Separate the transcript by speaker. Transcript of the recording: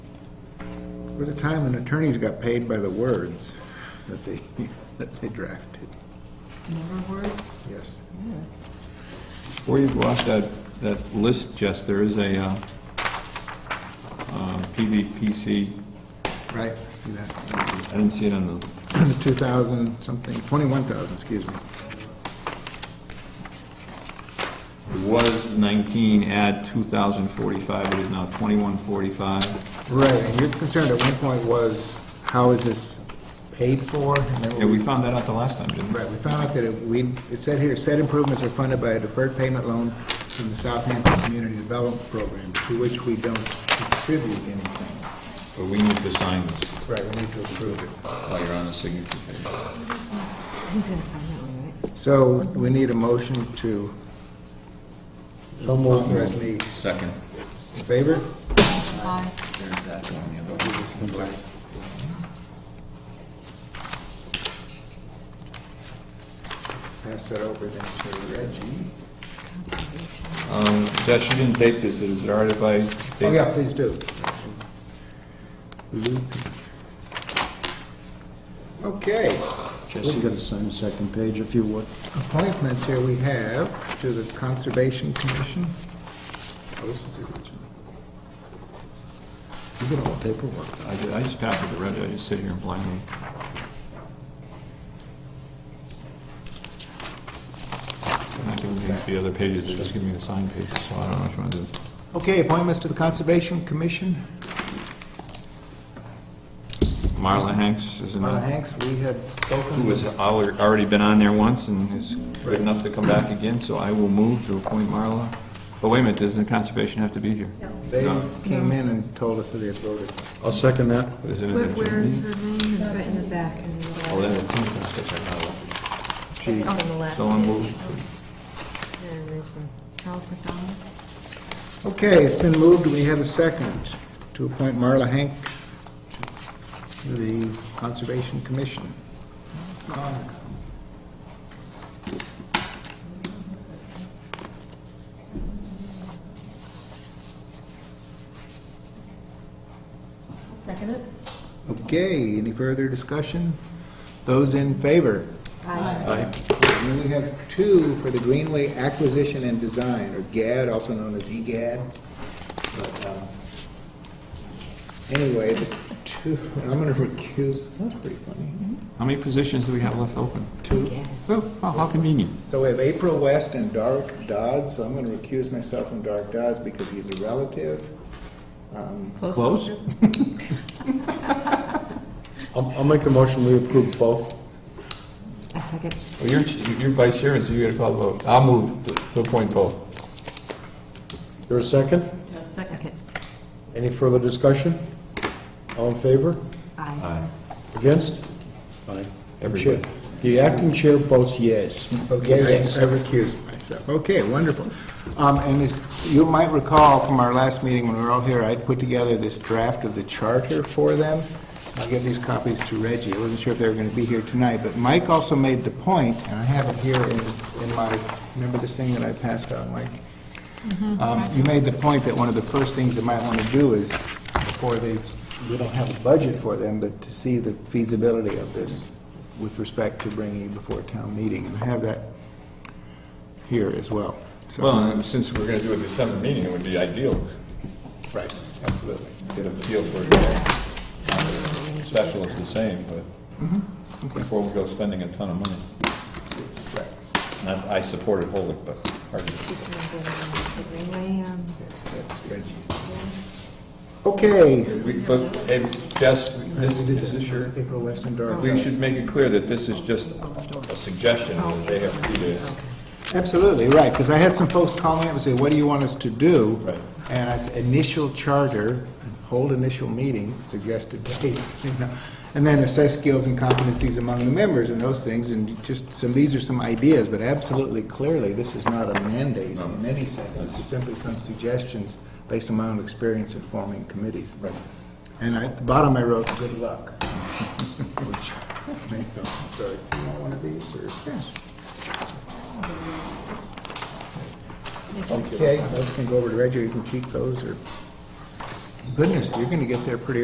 Speaker 1: was a time when attorneys got paid by the words that they, that they drafted.
Speaker 2: Number words?
Speaker 1: Yes.
Speaker 3: Before you go off that, that list, Jess, there is a, uh, uh, PVPC,
Speaker 1: Right, I see that.
Speaker 3: I didn't see it on the,
Speaker 1: The 2,000 something, 21,000, excuse me.
Speaker 3: it was nineteen, add two thousand forty-five, it is now twenty-one forty-five.
Speaker 1: Right, and your concern at one point was, how is this paid for? And then
Speaker 3: Yeah, we found that out the last time, didn't we?
Speaker 1: Right, we found out that it, we, it said here, said improvements are funded by a deferred payment loan from the Southampton Community Development Program, to which we don't contribute anything.
Speaker 3: But we need to sign this
Speaker 1: Right, we need to approve it.
Speaker 3: while you're on the signature page.
Speaker 2: He's gonna sign that one, right?
Speaker 1: So we need a motion to authorize me,
Speaker 3: Second.
Speaker 1: in favor?
Speaker 2: Aye.
Speaker 3: There's that one, yeah, but we just-
Speaker 1: Pass that over then to Reggie.
Speaker 3: Um, Jess, you didn't date this, is it all right if I? date-
Speaker 1: Oh, yeah, please do. Luke. Okay,
Speaker 4: Jesse, you gotta sign the second page if you would.
Speaker 1: appointments here we have to the Conservation Commission. Oh, this is the original. You get all the paperwork.
Speaker 3: I ju- I just pass it to Reggie, I just sit here and blindly. I'm not giving me the other pages, they're just giving me the signed pages, so I don't know which one to do.
Speaker 1: Okay, appointments to the Conservation Commission.
Speaker 3: Marla Hanks is
Speaker 1: Marla
Speaker 3: another,
Speaker 1: Uh, Hanks, we had spoken.
Speaker 3: who has al- already been on there once and is good enough to come back again, so I will move to appoint Marla. But wait a minute, doesn't conservation have to be here?
Speaker 1: They
Speaker 3: No.
Speaker 1: came in and told us that they had voted.
Speaker 4: I'll second that.
Speaker 3: Is it an
Speaker 2: Where-
Speaker 3: interim
Speaker 2: Where is
Speaker 3: meeting?
Speaker 2: her name? It's right in the back. in the middle.
Speaker 3: Oh, then it's in the process, I got it.
Speaker 1: She,
Speaker 2: On the left.
Speaker 3: So I'll move.
Speaker 2: There is a Charles McDonald.
Speaker 1: okay, it's been moved, we have a second to appoint Marla Hank to the Conservation Commission.
Speaker 2: Second it?
Speaker 1: Okay, any further discussion? Those in favor?
Speaker 2: Aye.
Speaker 1: And then we have two for the Greenway Acquisition and Design, or GAD, also known as EGAD. But, um, Anyway, the two, and I'm going to recuse, that's pretty funny,
Speaker 3: How many positions do we have left open?
Speaker 1: two.
Speaker 3: Oh, how convenient.
Speaker 1: So we have April West and Dark Dodd, so I'm going to recuse myself from Dark Dodds because he's a relative. Um,
Speaker 3: Close?
Speaker 4: I'll, I'll make the motion, we approve both.
Speaker 2: I second.
Speaker 3: Well, you're, you're vice chair, so you gotta call the vote. I'll move to- to appoint both.
Speaker 4: There a second?
Speaker 2: Second.
Speaker 4: Any further discussion? All in favor?
Speaker 2: Aye.
Speaker 4: Against? Aye.
Speaker 3: Everybody.
Speaker 4: Chair- The acting chair votes yes.
Speaker 1: Okay, I I recuse myself. Okay, wonderful. Um, And as you might recall from our last meeting when we were all here, I'd put together this draft of the charter for them. I'll give these copies to Reggie. I wasn't sure if they were going to be here tonight, but Mike also made the point, and I have it here in in my, remember this thing that I passed out, Mike? Um, You made the point that one of the first things they might want to do is, before they, we don't have a budget for them, but to see the feasibility of this with respect to bringing it before town meeting, and I have that here as well. So-
Speaker 3: Well, uh, and since we're gonna do a December meeting, it would be ideal
Speaker 1: Right, absolutely.
Speaker 3: to get a feel for it. all. Special is the same, but before we go spending a ton of money.
Speaker 1: Mm-hmm. Right.
Speaker 3: Not- I supported wholly, but hard
Speaker 2: The
Speaker 3: to...
Speaker 2: Greenway, um,
Speaker 1: That's Reggie's. Okay.
Speaker 3: We- But, hey, Jess, this-
Speaker 1: We did
Speaker 3: is
Speaker 1: that.
Speaker 3: this your,
Speaker 1: April West and Dark
Speaker 3: we
Speaker 1: Horse.
Speaker 3: should make it clear that this is just a suggestion that they have to do this.
Speaker 1: Absolutely, right, because I had some folks call me up and say, what do you want us to do?
Speaker 3: Right.
Speaker 1: And I said, initial charter, hold initial meeting, suggested dates, you know, and then assess skills and competencies among the members and those things, and just some, these are some ideas, but absolutely clearly, this is not a mandate in any sense, it's just simply some suggestions based on my own experience in forming committees. Right. And I- at the bottom, I wrote, good luck. Which, so, if you want one of these, or? Okay, those can go over to Reggie, you can keep those, or, goodness, you're gonna get there pretty